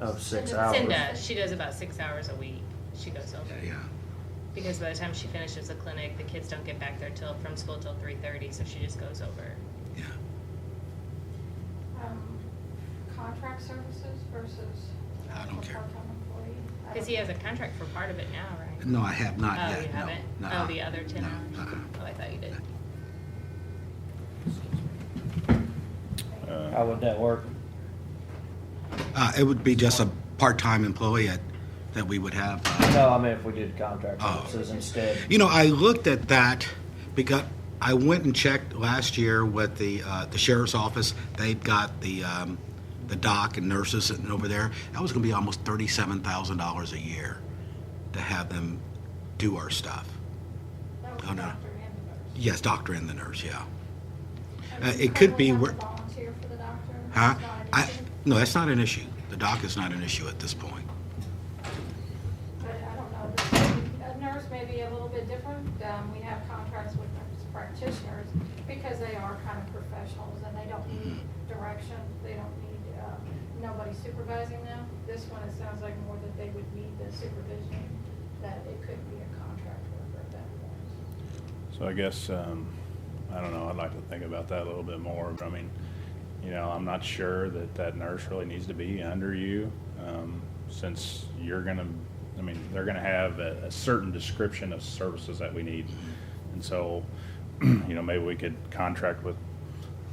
of six hours. Um, Cinda, she does about six hours a week. She goes over. Yeah. Because by the time she finishes the clinic, the kids don't get back there till, from school till three thirty, so she just goes over. Yeah. um, contract services versus I don't actual care. part-time employee. I Cause don't- he has a contract for part of it now, right? No, I have not Oh, yet. you No. haven't? Nuh-uh. Oh, the other ten No, uh-uh. hours? nuh-uh. Oh, I thought you did. How would that work? Uh, it would be just a part-time employee at, that we would have. uh, No, I mean if we did contract Oh. services instead. You know, I looked at that because I went and checked last year with the, uh, the sheriff's office. They've got the, um, the doc and nurses sitting over there. That was gonna be almost thirty-seven thousand dollars a year to have them do our stuff. That was Oh, no. doctor and the nurse. Yes, doctor and the nurse, yeah. I Uh, mean, it I could would be have to wor- Volunteer for the doctor. It's Huh? not an I, issue, no, that's not an issue. The doc is not an issue at this point. But I don't know, this- a nurse may be a little bit different. Um, we have contracts with nurse practitioners because they are kind of professionals and they don't need direction. They don't need, um, nobody supervising them. This one, it sounds like more that they would need the supervision, that it could be a contract worker at that point. So I guess, um, I don't know, I'd like to think about that a little bit more. I mean, you know, I'm not sure that that nurse really needs to be under you, um, since you're gonna, I mean, they're gonna have a, a certain description of services that we need. And so, you know, maybe we could contract with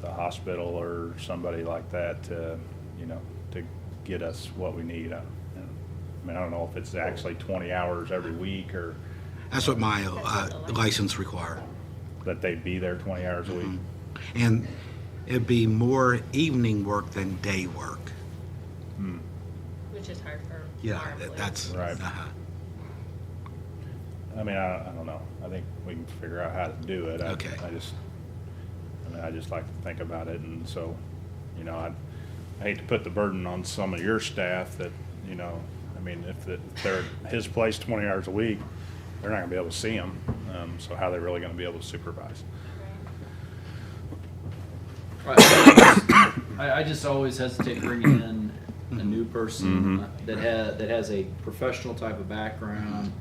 the hospital or somebody like that to, you know, to get us what we need. I I mean, I don't know if it's actually twenty hours every week or That's what my uh, That's what the license- license require. Mm-hmm. that they be there twenty hours a week. And it'd be more evening work than day work. Which is hard for our Yeah, employees. that- that's, Right. uh-huh. I mean, I, I don't know. I think we can figure out how to do it. I, Okay. I just, I mean, I just like to think about it, and so, you know, I, I hate to put the burden on some of your staff that, you know, I mean, if the- if they're at his place twenty hours a week, they're not gonna be able to see them. Um, so how are they really gonna be able to supervise? Right. I, I just always hesitate bringing in a new person Mm-hmm. that has that has a professional type of background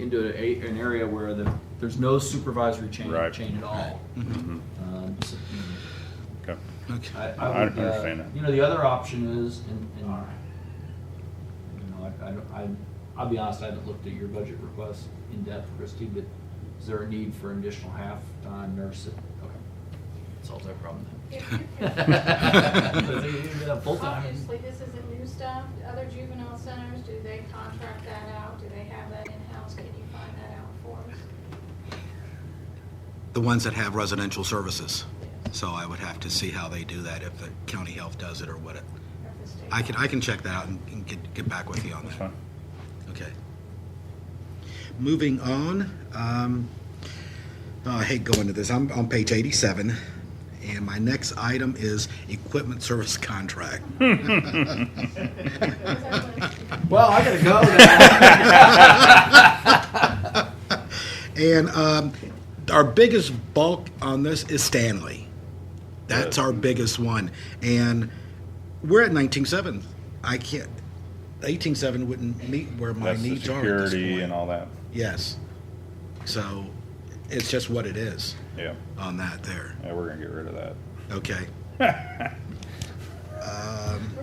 into a, an area where the, there's no supervisory chain Right. chain at all. Um, so, you know, Okay. Mm-hmm. Okay. I, I I would, understand uh, that. you know, the other option is, and, and, you know, I, I, don't- I, I'll be honest, I haven't looked at your budget request in depth, Christie, but is there a need for an additional half-time nurse? that- Okay, solves that problem If you then. could- But they need a Full-time. Obviously, this isn't new stuff. Other juvenile centers, do they contract that out? Do they have that in-house? Can you find that out for us? The ones that have residential services. Yes. So I would have to see how they do that, if the county health does it or what it, Or if the state- I can, I can check that out and and get, get back with you on That's that. fine. Okay. Moving on, um, oh, I hate going to this, I'm on page eighty-seven, and my next item is equipment service contract. Is that what it's- Well, I gotta go now. And um, our biggest bulk on this is Stanley. That's our biggest one, and we're at nineteen seven. I can't. Eighteen seven wouldn't meet where my That's the needs are at this security point. and all that. Yes. So, it's just what it is Yeah, on that there. yeah, we're gonna get rid of that. Okay.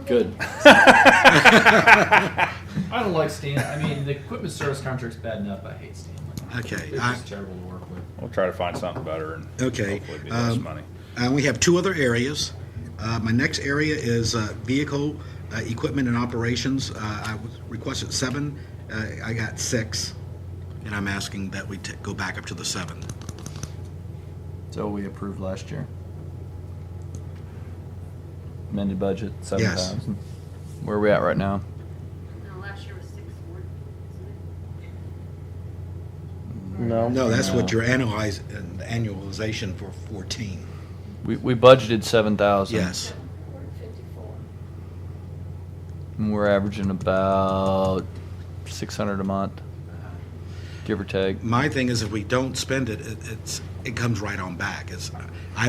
Good. I don't like Stan, I mean, the equipment service contract's bad enough, I hate Stanley. Okay, It's I- just terrible to work with. We'll try to find something better and Okay, hopefully be less um, money. Uh, we have two other areas. Uh, my next area is uh, vehicle uh, equipment and operations. Uh, I was requested seven. Uh, I got six, and I'm asking that we t- go back up to the seven. So we approved last year. Amended budget, seven Yes. thousand. Where are we at right now? No, last year was six forty, isn't it? No. No, that's what No. you're analyzing annualization for 14. We, we budgeted seven thousand. Yes. We're at fifty-four. And we're averaging about six hundred a month, give or take. My thing is, if we don't spend it, it it's it comes right on back. It's I